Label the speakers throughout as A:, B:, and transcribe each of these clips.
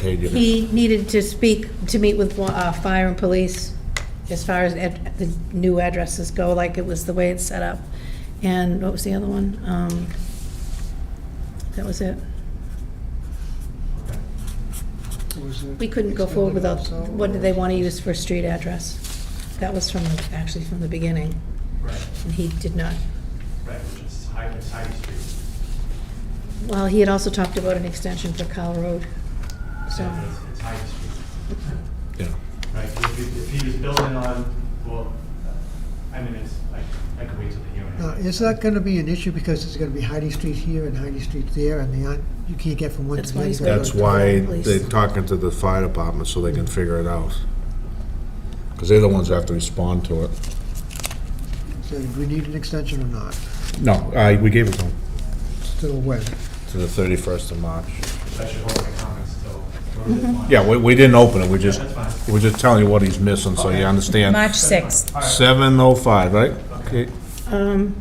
A: Katie.
B: He needed to speak, to meet with uh, fire and police as far as ad- the new addresses go, like it was the way it's set up. And what was the other one? Um, That was it. We couldn't go forward without, what did they want to use for a street address? That was from, the- actually from the beginning,
C: Right,
B: and he did not.
C: right, which is High, it's High Street.
B: Well, he had also talked about an extension for Kyle Road, so,
C: It's- It's High Street,
A: Yeah.
C: right, if, he- if he was building on, well, uh, I mean, it's, like I could wait till the hearing.
D: Now, is that gonna be an issue because it's gonna be Heidi Street here and Heidi Street there and they aren't, you can't get from one
B: That's
D: to
B: why
D: the other?
B: he's
D: you gotta go
A: That's
D: to-
A: why they're talking to the fire department, so they can figure it out. Because they're the ones that have to respond to it.
D: So do we need an extension or not?
A: No, I, we gave it to them.
D: Still when?
A: To the 31st of March.
C: I should hold my comments
B: Mm-hmm.
C: till.
A: Yeah, we, we didn't open it, we just,
C: That's fine.
A: we're just telling you what he's missing, so you understand.
E: March 6th.
C: All right,
A: 7:05, right?
C: Okay.
A: Okay.
B: um,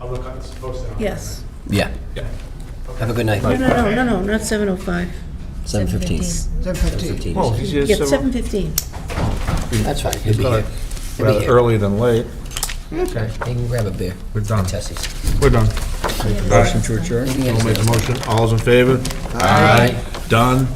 C: I'll look, up- it's posted on.
B: yes.
F: Yeah. Have a good night.
B: No, no, no, no, no, not 7:05.
F: 7:15.
D: Seven fifteen?
A: Well, he's here
B: Yeah,
A: seven-
B: 7:15.
F: That's fine. He'll be here. He'll be
A: rather
F: here.
A: early than late.
F: Okay. You can grab a beer.
A: We're done.
F: Tessie's.
A: We're done.
F: Motion to adjourn.
A: I'll make the motion. All's in favor?
F: Aye.
A: Done.